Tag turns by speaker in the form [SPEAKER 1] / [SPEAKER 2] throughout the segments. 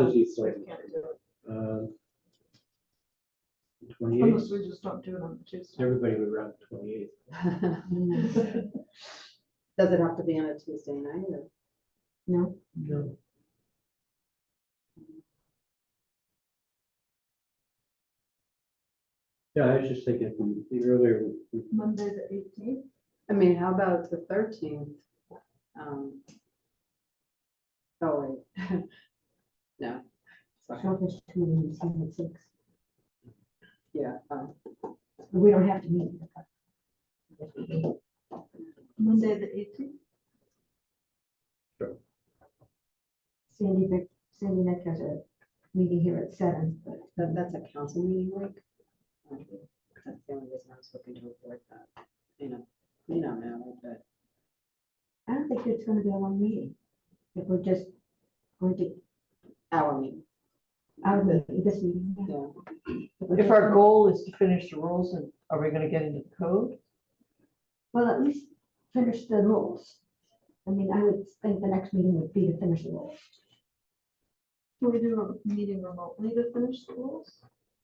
[SPEAKER 1] Apologies, sorry.
[SPEAKER 2] Can't do it.
[SPEAKER 1] Um,
[SPEAKER 2] Unless we
[SPEAKER 1] 28th,
[SPEAKER 2] just don't do it on Tuesday.
[SPEAKER 1] everybody would run 28th.
[SPEAKER 3] Does it have to be on a Tuesday night or?
[SPEAKER 2] No,
[SPEAKER 1] No. Yeah, I was just thinking from the earlier, we-
[SPEAKER 2] Monday the eighteenth.
[SPEAKER 3] I mean, how about the thirteenth? Um Oh, wait. No. Sorry.
[SPEAKER 4] Shellfish committee is seven to six.
[SPEAKER 3] Yeah, um,
[SPEAKER 4] We don't have to meet.
[SPEAKER 2] Monday the eighteenth.
[SPEAKER 4] Sandy, Vic- Sandy Nick has a meeting here at seven, but
[SPEAKER 3] that, that's a council meeting week. Um, That's the only reason I was looking to avoid that, you know, you know, now, but
[SPEAKER 4] I don't think it's gonna be a long meeting. If we're just going to,
[SPEAKER 3] our meeting,
[SPEAKER 4] out of the- this meeting. yeah.
[SPEAKER 3] yeah.
[SPEAKER 4] we're
[SPEAKER 5] If
[SPEAKER 4] just-
[SPEAKER 5] our goal is to finish the rules, and are we gonna get into the code?
[SPEAKER 4] Well, at least finish the rules. I mean, I would think the next meeting would be to finish the rules.
[SPEAKER 2] Can we do a meeting remotely to finish the rules?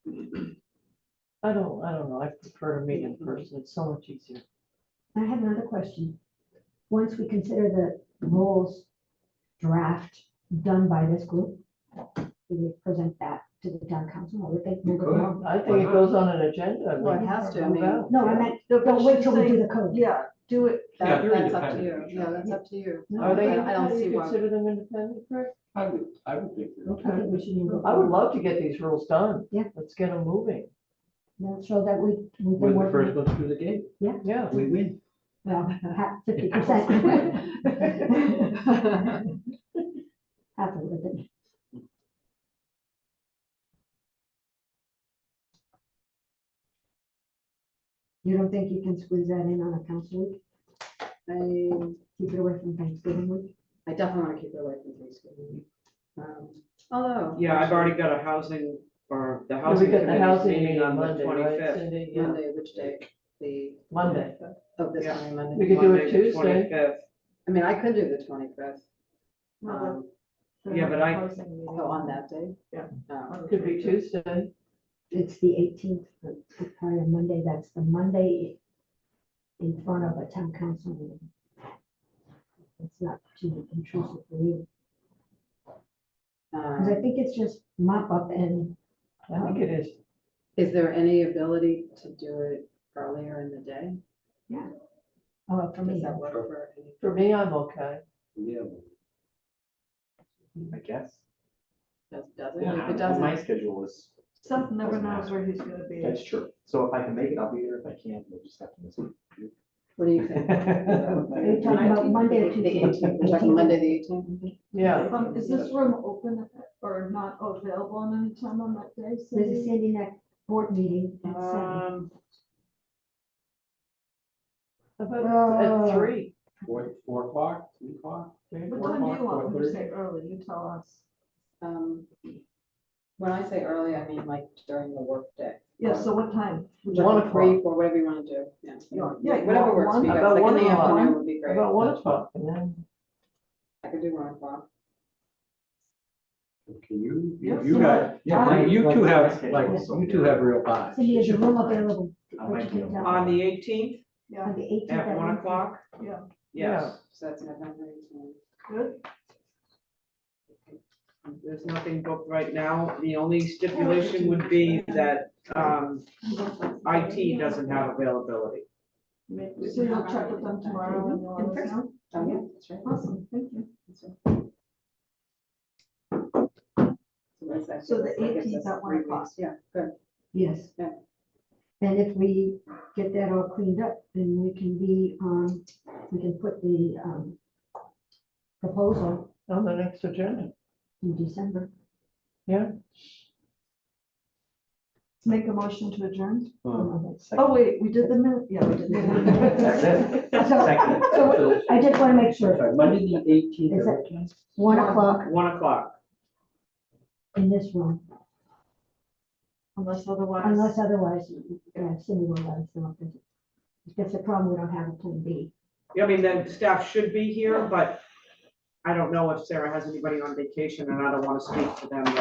[SPEAKER 5] I don't, I don't know, I prefer to meet in person, it's so much easier.
[SPEAKER 4] I have another question. Once we consider the rules draft done by this group, we would present that to the town council, I would think. we'll go along.
[SPEAKER 5] I think it goes on an agenda. and we
[SPEAKER 3] Well, it has to, I
[SPEAKER 5] move
[SPEAKER 3] mean,
[SPEAKER 5] out.
[SPEAKER 4] No, I
[SPEAKER 5] Yeah.
[SPEAKER 4] meant, don't wait till we do the code.
[SPEAKER 2] Yeah, do it.
[SPEAKER 1] Yeah,
[SPEAKER 3] That-
[SPEAKER 1] they're
[SPEAKER 3] That's up to you,
[SPEAKER 1] independent of each
[SPEAKER 3] yeah,
[SPEAKER 1] other.
[SPEAKER 3] that's up to you.
[SPEAKER 5] Are they,
[SPEAKER 3] I I don't
[SPEAKER 5] do
[SPEAKER 3] see
[SPEAKER 5] you
[SPEAKER 3] why,
[SPEAKER 5] consider them independent, Rick?
[SPEAKER 6] I would, I would think that.
[SPEAKER 4] I think we should move
[SPEAKER 5] I would
[SPEAKER 4] on.
[SPEAKER 5] love to get these rules done.
[SPEAKER 4] Yeah.
[SPEAKER 5] Let's get them moving,
[SPEAKER 4] No, So that we, we
[SPEAKER 1] we're
[SPEAKER 4] can
[SPEAKER 1] the
[SPEAKER 4] work.
[SPEAKER 1] first
[SPEAKER 4] on-
[SPEAKER 1] ones through the gate,
[SPEAKER 5] yeah.
[SPEAKER 1] we win.
[SPEAKER 4] Well, fifty percent. Half of it. You don't think you can squeeze that in on a council week?
[SPEAKER 3] I,
[SPEAKER 4] Keep it away from Thanksgiving week?
[SPEAKER 3] I definitely want to keep it away from Thanksgiving. Um, Although.
[SPEAKER 7] Yeah, I've already got a housing, or the
[SPEAKER 5] We'll be
[SPEAKER 7] housing
[SPEAKER 5] getting the
[SPEAKER 7] committee's
[SPEAKER 5] housing
[SPEAKER 7] meeting on the
[SPEAKER 5] Monday, right,
[SPEAKER 7] twenty-fifth.
[SPEAKER 5] Cindy? Yeah,
[SPEAKER 3] Monday, which day, the,
[SPEAKER 5] Monday.
[SPEAKER 3] oh, this
[SPEAKER 7] Yeah.
[SPEAKER 3] coming
[SPEAKER 5] We
[SPEAKER 3] Monday.
[SPEAKER 5] could do it Tuesday.
[SPEAKER 7] Twenty-fifth,
[SPEAKER 3] I mean, I could do the twenty-fifth, um,
[SPEAKER 7] Yeah, but I-
[SPEAKER 3] oh, on that day.
[SPEAKER 7] Yeah.
[SPEAKER 3] Um,
[SPEAKER 5] Could be Tuesday.
[SPEAKER 4] It's the eighteenth, the the prior Monday, that's the Monday in front of a town council meeting. It's not too intrusive for you, because I
[SPEAKER 3] um,
[SPEAKER 4] think it's just mop up and,
[SPEAKER 5] I think it is.
[SPEAKER 3] Is there any ability to do it earlier in the day?
[SPEAKER 4] oh, for
[SPEAKER 3] Does
[SPEAKER 4] me,
[SPEAKER 3] that work for any?
[SPEAKER 5] For me, I'm okay.
[SPEAKER 1] Yeah. I guess.
[SPEAKER 3] Does does it? If
[SPEAKER 6] Yeah,
[SPEAKER 3] it
[SPEAKER 6] well, My
[SPEAKER 3] doesn't,
[SPEAKER 6] schedule is,
[SPEAKER 2] Seth never knows where he's gonna be.
[SPEAKER 6] that's true. So if I can make it, I'll be there. If I can't, we'll just have to miss it.
[SPEAKER 3] what do you think?
[SPEAKER 4] are you talking about Monday or
[SPEAKER 3] The
[SPEAKER 4] Tuesday?
[SPEAKER 3] eighteenth, we're talking Monday, the eighteenth?
[SPEAKER 5] Yeah,
[SPEAKER 2] Um, is this room open or not available on any time on that day?
[SPEAKER 4] There's a
[SPEAKER 2] Cindy?
[SPEAKER 4] Sandy Neck board meeting at seven.
[SPEAKER 7] Um,
[SPEAKER 5] How about at three.
[SPEAKER 6] Four, four o'clock, three o'clock?
[SPEAKER 5] Three
[SPEAKER 2] What
[SPEAKER 6] four
[SPEAKER 2] time do
[SPEAKER 6] o'clock,
[SPEAKER 2] you want when you
[SPEAKER 6] 4:30?
[SPEAKER 2] say early? You tell us.
[SPEAKER 3] Um, When I say early, I mean like during the workday.
[SPEAKER 2] Yeah, so what time?
[SPEAKER 5] One o'clock.
[SPEAKER 3] Three, four, whatever you want to do, yeah.
[SPEAKER 2] Yeah, you
[SPEAKER 3] Whatever
[SPEAKER 2] want
[SPEAKER 3] works for you
[SPEAKER 2] one?
[SPEAKER 3] guys,
[SPEAKER 5] About
[SPEAKER 3] like in the
[SPEAKER 5] one o'clock?
[SPEAKER 3] afternoon would be great.
[SPEAKER 5] About one o'clock and then.
[SPEAKER 3] I could do one o'clock.
[SPEAKER 1] Can you, you-
[SPEAKER 2] Yeah,
[SPEAKER 1] you
[SPEAKER 2] so
[SPEAKER 1] got,
[SPEAKER 6] I-
[SPEAKER 1] yeah, you two have,
[SPEAKER 6] Okay.
[SPEAKER 1] like, you two have real eyes.
[SPEAKER 4] Cindy, is your room available?
[SPEAKER 6] I might be able to-
[SPEAKER 7] on the eighteenth,
[SPEAKER 2] Yeah,
[SPEAKER 4] On the eighteenth.
[SPEAKER 7] at one o'clock,
[SPEAKER 2] yeah,
[SPEAKER 7] yes,
[SPEAKER 3] So that's November eighteenth.
[SPEAKER 2] good.
[SPEAKER 7] there's nothing booked right now, the only stipulation would be that, um, IT doesn't have availability.
[SPEAKER 2] So you'll check with them tomorrow and
[SPEAKER 3] In
[SPEAKER 2] you'll let us
[SPEAKER 3] person.
[SPEAKER 2] know?
[SPEAKER 3] Oh, yeah, that's right.
[SPEAKER 2] Awesome, thank you.
[SPEAKER 3] That's right. So that's actually-
[SPEAKER 2] So the
[SPEAKER 3] that gives
[SPEAKER 2] 18th
[SPEAKER 3] us
[SPEAKER 2] at one
[SPEAKER 3] three
[SPEAKER 2] o'clock.
[SPEAKER 3] weeks. Yeah, good.
[SPEAKER 4] Yes.
[SPEAKER 3] Yeah.
[SPEAKER 4] And if we get that all cleaned up, then we can be, um, we can put the, um, proposal
[SPEAKER 5] On the next agenda.
[SPEAKER 4] in December.
[SPEAKER 2] Make a motion to adjourn?
[SPEAKER 1] Um,
[SPEAKER 2] Oh, wait, we did the minute, yeah, we did the minute.
[SPEAKER 4] So
[SPEAKER 6] Second.
[SPEAKER 4] so I just want to make sure,
[SPEAKER 1] Sorry, Monday, the eighteenth.
[SPEAKER 4] Is it- one o'clock
[SPEAKER 7] One o'clock,
[SPEAKER 4] in this room,
[SPEAKER 2] Unless otherwise.
[SPEAKER 4] unless otherwise, uh, Cindy will let us know. if it's- If that's a problem, we don't have a plan B.
[SPEAKER 7] I mean, then staff should be here, but I don't know if Sarah has anybody on vacation and I don't wanna speak to them